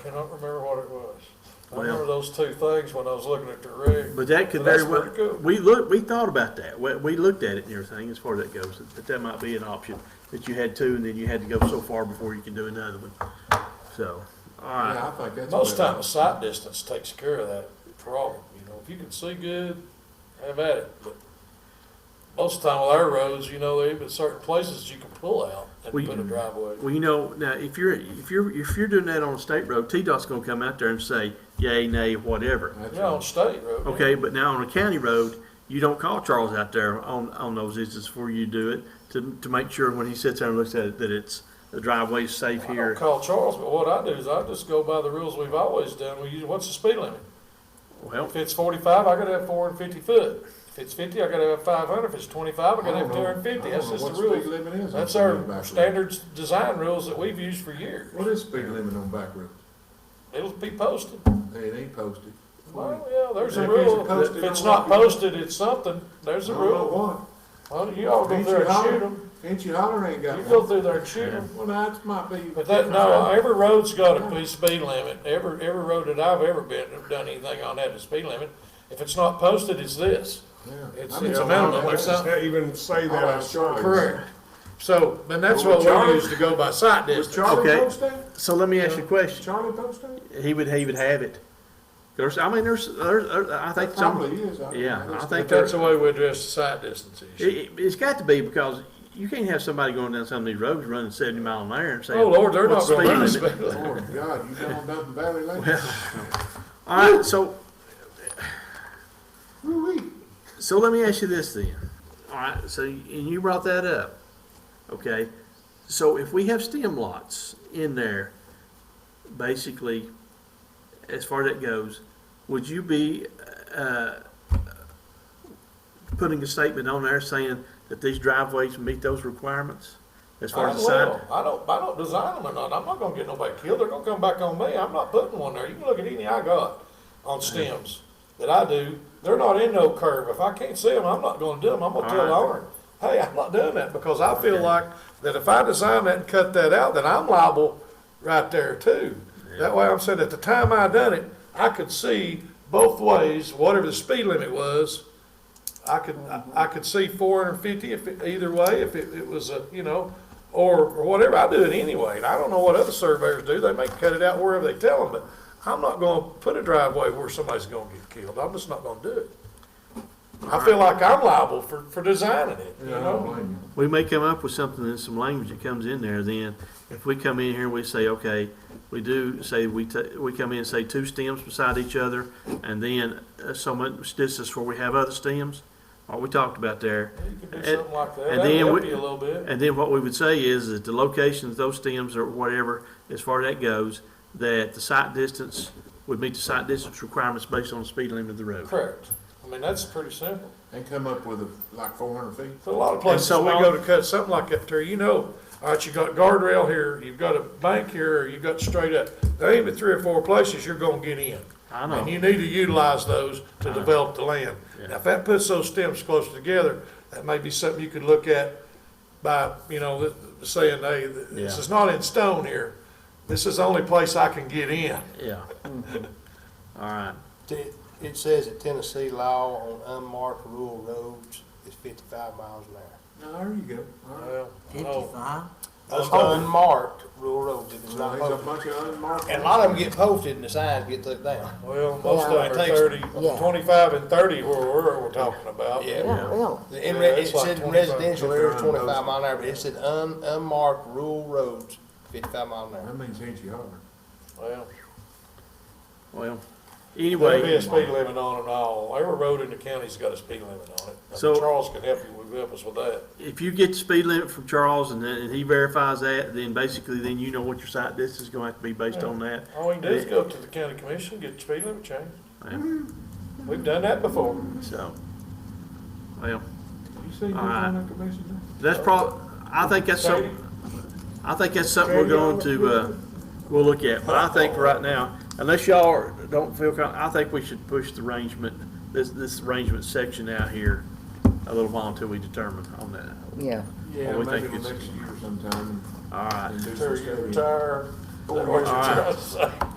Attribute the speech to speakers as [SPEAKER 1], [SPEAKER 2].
[SPEAKER 1] cannot remember what it was. I
[SPEAKER 2] Well-
[SPEAKER 1] remember those two things when I was looking at the rig.
[SPEAKER 2] But that could
[SPEAKER 1] But
[SPEAKER 2] very
[SPEAKER 1] that's pretty
[SPEAKER 2] well,
[SPEAKER 1] cool.
[SPEAKER 2] we looked, we thought about that. We, we looked at it and everything as far as that goes, that that might be an option. That you had two and then you had to go so far before you can do another one. So, all right.
[SPEAKER 3] Yeah, I think that's.
[SPEAKER 1] Most time, the sight distance takes care of that problem, you know, if you can see good, have at it, but most of the time with our roads, you know, there even certain places you can pull out and
[SPEAKER 2] We-
[SPEAKER 1] put a driveway.
[SPEAKER 2] Well, you know, now if you're, if you're, if you're doing that on a state road, T-Dot's gonna come out there and say yay, nay, whatever.
[SPEAKER 3] That's
[SPEAKER 1] Yeah, on
[SPEAKER 3] right.
[SPEAKER 1] state road. yeah.
[SPEAKER 2] Okay, but now on a county road, you don't call Charles out there on, on those issues before you do it to, to make sure when he sits there and looks at it, that it's, the driveway's safe
[SPEAKER 1] I don't
[SPEAKER 2] here.
[SPEAKER 1] call Charles, but what I do is I just go by the rules we've always done, we use, what's the speed limit?
[SPEAKER 2] Well,
[SPEAKER 1] If it's forty-five, I gotta have four hundred and fifty foot. If it's fifty, I gotta have five hundred. If it's twenty-five, I gotta have two hundred and fifty. That's just the rules. That's our standards design rules that we've used for years.
[SPEAKER 3] What is speed limit on back roads?
[SPEAKER 1] It'll be posted.
[SPEAKER 3] It ain't posted.
[SPEAKER 1] Well, yeah, there's a
[SPEAKER 3] If it's
[SPEAKER 1] rule.
[SPEAKER 3] posted,
[SPEAKER 1] If it's
[SPEAKER 3] I'm
[SPEAKER 1] not
[SPEAKER 3] not-
[SPEAKER 1] posted, it's something. There's
[SPEAKER 3] I
[SPEAKER 1] a
[SPEAKER 3] don't know
[SPEAKER 1] rule.
[SPEAKER 3] what.
[SPEAKER 1] Well, you all go
[SPEAKER 3] Ain't
[SPEAKER 1] through
[SPEAKER 3] you
[SPEAKER 1] and shoot
[SPEAKER 3] holler,
[SPEAKER 1] them.
[SPEAKER 3] ain't you holler ain't got
[SPEAKER 1] You
[SPEAKER 3] one?
[SPEAKER 1] go through there and shoot them.
[SPEAKER 3] Well, that might be.
[SPEAKER 1] But that, no, every road's got a p- speed limit, every, every road that I've ever been, done anything on had a speed limit. If it's not posted, it's this.
[SPEAKER 3] Yeah.
[SPEAKER 1] It's,
[SPEAKER 3] I mean,
[SPEAKER 1] it's a
[SPEAKER 3] I'll-
[SPEAKER 1] minimum or
[SPEAKER 3] I'll-
[SPEAKER 1] something.
[SPEAKER 4] even say
[SPEAKER 3] I'll
[SPEAKER 4] that
[SPEAKER 3] ask Charlie.
[SPEAKER 1] Correct. So, and that's
[SPEAKER 3] Well,
[SPEAKER 1] what we
[SPEAKER 3] Charlie-
[SPEAKER 1] use to go by sight
[SPEAKER 3] Was
[SPEAKER 1] distance.
[SPEAKER 3] Charlie
[SPEAKER 2] Okay.
[SPEAKER 3] post that?
[SPEAKER 2] so let me ask you a question.
[SPEAKER 3] Charlie post that?
[SPEAKER 2] He would, he would have it. There's, I mean, there's, there's, there- I think some,
[SPEAKER 3] Probably is. I-
[SPEAKER 2] yeah,
[SPEAKER 3] I just-
[SPEAKER 2] I
[SPEAKER 1] But
[SPEAKER 2] think
[SPEAKER 1] that's
[SPEAKER 2] there's,
[SPEAKER 1] the
[SPEAKER 2] it,
[SPEAKER 1] way we address the sight distance issue.
[SPEAKER 2] it- it's got to be because you can't have somebody going down some of these roads running seventy mile an hour and saying.
[SPEAKER 1] Oh, Lord, they're not
[SPEAKER 2] "What's the
[SPEAKER 1] gonna run a
[SPEAKER 2] speed limit?"
[SPEAKER 1] speed limit.
[SPEAKER 3] Lord God, you down down the valley lane?
[SPEAKER 2] All right, Uh, so,
[SPEAKER 3] Woo-wee.
[SPEAKER 2] so let me ask you this then. All right, so, and you brought that up, okay? So if we have stem lots in there, basically, as far as that goes, would you be, uh, putting a statement on there saying that these driveways meet those requirements? As far
[SPEAKER 1] I
[SPEAKER 2] as the side,
[SPEAKER 1] will. I don't, I don't design them or not. I'm not gonna get nobody killed. They're gonna come back on me. I'm not putting one there. You can look at any I got on stems that I do. They're not in no curve. If I can't see them, I'm not gonna do them. I'm gonna tell
[SPEAKER 2] Alright.
[SPEAKER 1] Lauren, hey, I'm not doing that because I feel like that if I design that and cut that out, then I'm liable right there too. That way I'm saying at the time I done it, I could see both ways, whatever the speed limit was. I could, I- I could see four hundred and fifty if, it- either way, if it, it was a, you know, or, or whatever, I do it anyway, and I don't know what other surveyors do, they may cut it out wherever they tell them, but I'm not gonna put a driveway where somebody's gonna get killed, I'm just not gonna do it. I feel like I'm liable for, for designing it, you
[SPEAKER 3] Yeah, I don't
[SPEAKER 1] know?
[SPEAKER 3] blame you.
[SPEAKER 2] we may come up with something in some language that comes in there then. If we come in here and we say, okay, we do say, we ta- we come in and say two stems beside each other and then uh, so much distance where we have other stems, what we talked about there.
[SPEAKER 1] You could do
[SPEAKER 2] And-
[SPEAKER 1] something like that,
[SPEAKER 2] and
[SPEAKER 1] that'd
[SPEAKER 2] then
[SPEAKER 1] help
[SPEAKER 2] we-
[SPEAKER 1] you a little bit.
[SPEAKER 2] And then what we would say is that the locations, of those stems or whatever, as far as that goes, that the site distance would meet the site distance requirements based on the speed limit of the road.
[SPEAKER 1] Correct, I mean, that's pretty simple.
[SPEAKER 3] And come up with a, like four hundred feet?
[SPEAKER 1] So A lot of places,
[SPEAKER 2] so
[SPEAKER 1] we
[SPEAKER 2] on-
[SPEAKER 1] go to cut something like that there, you know, all right, you got guardrail here, you've got a bank here, or you've got straight up. There ain't but three or four places you're gonna get in.
[SPEAKER 2] I know.
[SPEAKER 1] And you need to utilize those to develop the land. Now, if that puts those stems close together, that may be something you could look at by, you know, th- saying, hey, th- this
[SPEAKER 2] Yeah.
[SPEAKER 1] is not in stone here. This is the only place I can get in.
[SPEAKER 2] Yeah. All right.
[SPEAKER 5] It it says that Tennessee law on unmarked rural roads is fifty-five miles an hour.
[SPEAKER 3] There you go. All right.
[SPEAKER 1] oh,
[SPEAKER 6] Fifty-five?
[SPEAKER 5] Unmarked rural roads,
[SPEAKER 1] Uh,
[SPEAKER 5] if it's
[SPEAKER 3] Well,
[SPEAKER 5] not
[SPEAKER 3] there's a
[SPEAKER 5] posted.
[SPEAKER 3] bunch of unmarked.
[SPEAKER 5] And a lot of them get posted and the signs get took down.
[SPEAKER 1] Well,
[SPEAKER 6] most of them
[SPEAKER 5] are 30
[SPEAKER 6] Yeah.
[SPEAKER 1] and thirty where we're, we're talking about.
[SPEAKER 5] Yeah.
[SPEAKER 6] Well,
[SPEAKER 5] The in
[SPEAKER 1] Yeah,
[SPEAKER 5] re-
[SPEAKER 1] it's
[SPEAKER 5] It
[SPEAKER 1] like
[SPEAKER 5] said
[SPEAKER 1] 25,
[SPEAKER 5] residential areas
[SPEAKER 3] 29
[SPEAKER 5] twenty-five mile an hour, but it said un, unmarked rural roads, fifty-five mile an hour.
[SPEAKER 3] That means ain't you holler.
[SPEAKER 1] Well.
[SPEAKER 2] Well,
[SPEAKER 1] There'll be
[SPEAKER 2] anyway,
[SPEAKER 1] a speed limit on it all. Every road in the county's got a speed limit on it. And
[SPEAKER 2] So-
[SPEAKER 1] Charles can help you, with- help us with that.
[SPEAKER 2] if you get the speed limit from Charles and then, and he verifies that, then basically then you know what your site distance is gonna have to be based on that.
[SPEAKER 1] All we can do is Oh, go up to the county commission, get the speed limit changed.
[SPEAKER 2] Yeah,
[SPEAKER 1] We've done that before.
[SPEAKER 2] So, well,
[SPEAKER 3] You see, you're
[SPEAKER 2] All right.
[SPEAKER 3] on that commission.
[SPEAKER 2] that's prob, I think that's
[SPEAKER 1] Katie,
[SPEAKER 2] something, I think that's something we're going to, uh, we'll look at, but I think for right now, unless y'all are- don't feel, con- I think we should push the arrangement, this, this arrangement section out here a little while until we determine on that.
[SPEAKER 6] yeah.
[SPEAKER 3] Yeah,
[SPEAKER 2] Well, we
[SPEAKER 3] maybe
[SPEAKER 2] think it's-
[SPEAKER 3] the
[SPEAKER 2] uh,
[SPEAKER 3] next year sometime.
[SPEAKER 2] All right,
[SPEAKER 3] and do some
[SPEAKER 1] Terry, you
[SPEAKER 3] studying.
[SPEAKER 1] retire. Is that what you're
[SPEAKER 2] All right.
[SPEAKER 1] trying to say?